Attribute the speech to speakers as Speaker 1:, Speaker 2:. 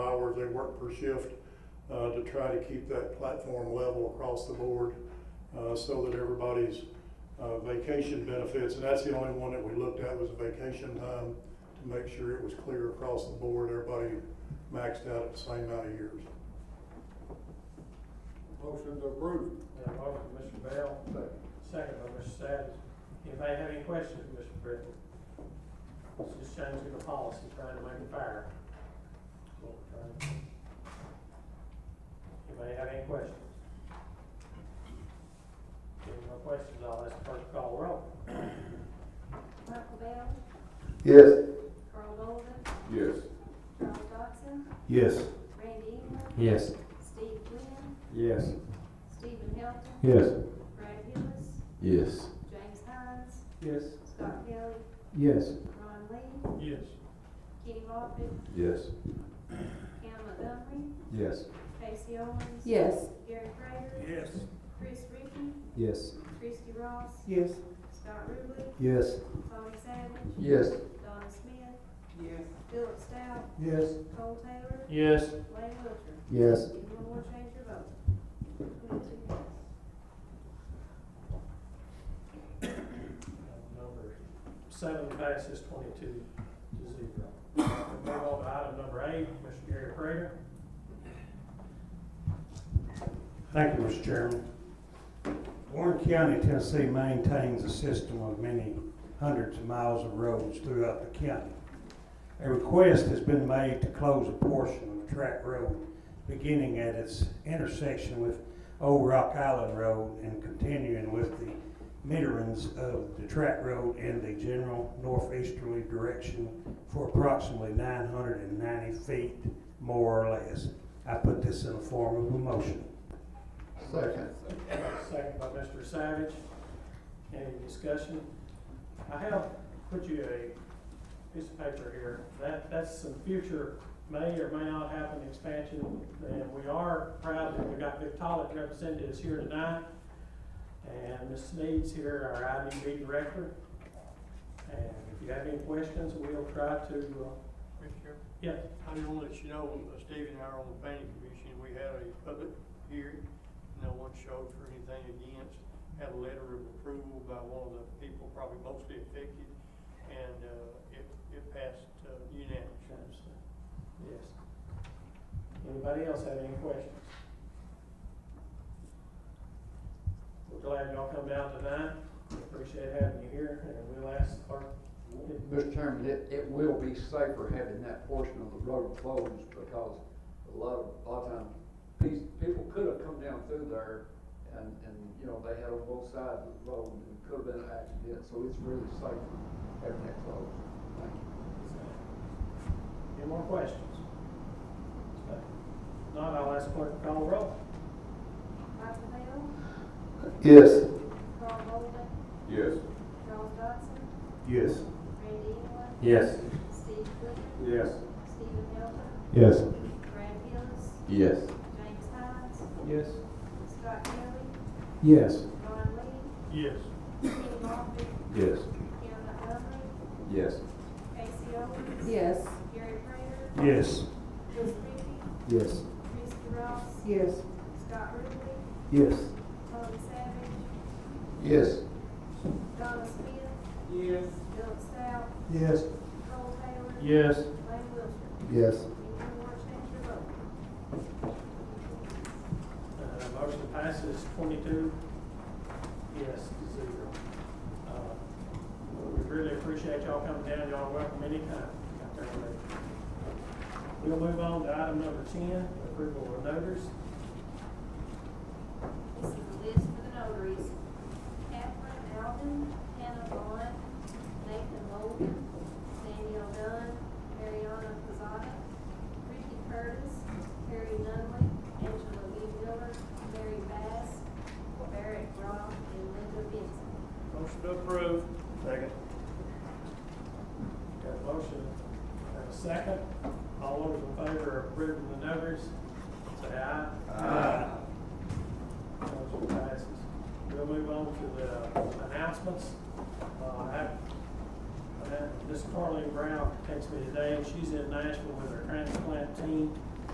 Speaker 1: work per shift uh, to try to keep that platform level across the board uh, so that everybody's uh, vacation benefits, and that's the only one that we looked at was vacation time to make sure it was clear across the board, everybody maxed out at the same amount of years.
Speaker 2: Motion to approve.
Speaker 3: Got a motion by Mr. Bell, second by Mr. Savage. Anybody have any questions for Mr. Britton? It's just changing the policy, trying to make it fair. That's what we're trying to do. Anybody have any questions? If no questions, I'll ask the clerk to call the roll.
Speaker 4: Michael Bell,
Speaker 5: Yes.
Speaker 4: Carl Bolden,
Speaker 2: Yes.
Speaker 4: Charles Dodson,
Speaker 5: Yes.
Speaker 4: Randy England,
Speaker 5: Yes.
Speaker 4: Steve Quinn,
Speaker 5: Yes.
Speaker 4: Stephen Hilton,
Speaker 5: Yes.
Speaker 4: Brad Hillis,
Speaker 5: Yes.
Speaker 4: James Hines,
Speaker 5: Yes.
Speaker 4: Scott Kelly,
Speaker 5: Yes.
Speaker 4: Ron Lee,
Speaker 3: Yes.
Speaker 4: Kenny Moffitt,
Speaker 5: Yes.
Speaker 4: Cam Montgomery,
Speaker 5: Yes.
Speaker 4: Casey Owens.
Speaker 6: Yes.
Speaker 4: Gary Prater,
Speaker 3: Yes.
Speaker 4: Chris Ricky,
Speaker 5: Yes.
Speaker 4: Christie Ross,
Speaker 6: Yes.
Speaker 4: Scott Ruble,
Speaker 5: Yes.
Speaker 4: Tommy Savage,
Speaker 5: Yes.
Speaker 4: Donna Smith,
Speaker 6: Yes.
Speaker 4: Philip Stout,
Speaker 5: Yes.
Speaker 4: Cole Taylor,
Speaker 3: Yes.
Speaker 4: Lane Wilcher.
Speaker 5: Yes.
Speaker 4: If you want to change your vote. Twenty-two yes.
Speaker 3: Number seven passes twenty-two to zero. Move on to item number eight, Mr. Gary Prater.
Speaker 7: Thank you, Mr. Chairman. Warren County, Tennessee maintains a system of many hundreds of miles of roads throughout the county. A request has been made to close a portion of the track road beginning at its intersection with Old Rock Island Road and continuing with the meaderings of the track road in the general northeasterly direction for approximately nine hundred and ninety feet, more or less. I put this in the form of a motion.
Speaker 5: Second.
Speaker 3: Second by Mr. Savage. Any discussion? I have put you a piece of paper here. That, that's some future may or may not happen expansion. And we are proud that we got Victolic representatives here tonight. And Ms. Sneed's here, our IDB director. And if you have any questions, we'll try to, uh,
Speaker 8: Mr. Chairman,
Speaker 3: yeah,
Speaker 8: I just want to let you know, uh, Steve and I are on the planning commission, we had a public hearing, no one showed for anything against, had a letter of approval by one of the people probably mostly affected, and, uh, it, it passed uh, unanimously.
Speaker 3: Yes. Anybody else have any questions? We're glad y'all come down tonight, We appreciate having you here, and we'll ask the clerk.
Speaker 9: Mr. Chairman, it, it will be safer having that portion of the road closed because a lot of, a lot of times, these people could have come down through there and, and, you know, they had on both sides of the road and it could have been an accident, so it's really safe having that closed. Thank you.
Speaker 3: Any more questions? Okay. If Not, I'll ask the clerk to call the roll.
Speaker 4: Michael Bell,
Speaker 5: Yes.
Speaker 4: Carl Bolden,
Speaker 2: Yes.
Speaker 4: Charles Dodson,
Speaker 5: Yes.
Speaker 4: Randy England,
Speaker 5: Yes.
Speaker 4: Steve Quinn,
Speaker 2: Yes.
Speaker 4: Stephen Hilton,
Speaker 5: Yes.
Speaker 4: Brad Hillis,
Speaker 5: Yes.
Speaker 4: James Hines,
Speaker 5: Yes.
Speaker 4: Scott Kelly,
Speaker 5: Yes.
Speaker 4: Ron Lee,
Speaker 8: Yes.
Speaker 4: Kenny Moffitt,
Speaker 5: Yes.
Speaker 4: Cam Montgomery,
Speaker 5: Yes.
Speaker 4: Casey Owens,
Speaker 6: Yes.
Speaker 4: Gary Prater,
Speaker 7: Yes.
Speaker 4: Chris Reapy,
Speaker 5: Yes.
Speaker 4: Christie Ross,
Speaker 6: Yes.
Speaker 4: Scott Ruble,
Speaker 5: Yes.
Speaker 4: Tommy Savage,
Speaker 5: Yes.
Speaker 4: Donna Smith,
Speaker 6: Yes.
Speaker 4: Philip Stout,
Speaker 7: Yes.
Speaker 4: Cole Taylor,
Speaker 7: Yes.
Speaker 4: Lane Wilcher.
Speaker 5: Yes.
Speaker 4: If you want to change your vote.
Speaker 3: Uh, motion passes twenty-two, yes, to zero. Uh, We really appreciate y'all coming down, y'all are welcome anytime. out there. We'll move on to item number ten, approval of notice.
Speaker 4: This is the list for the notaries. Catherine Alden, Hannah Vaughn, Nathan Logan, Daniel Dunn, Mariana Pizzata, Ricky Curtis, Harry Nunley, Angela Lee Miller, Mary Bass, Barrett Roth, and Linda Vincent.
Speaker 8: Motion approved. Second.
Speaker 3: Got a motion and a second. All those in favor of approving the notice, say aye. Aye. Motion passes. We'll move on to the announcements. Uh, I have- I have- Miss Carly Brown texted me today, and she's in Nashville with her transplant team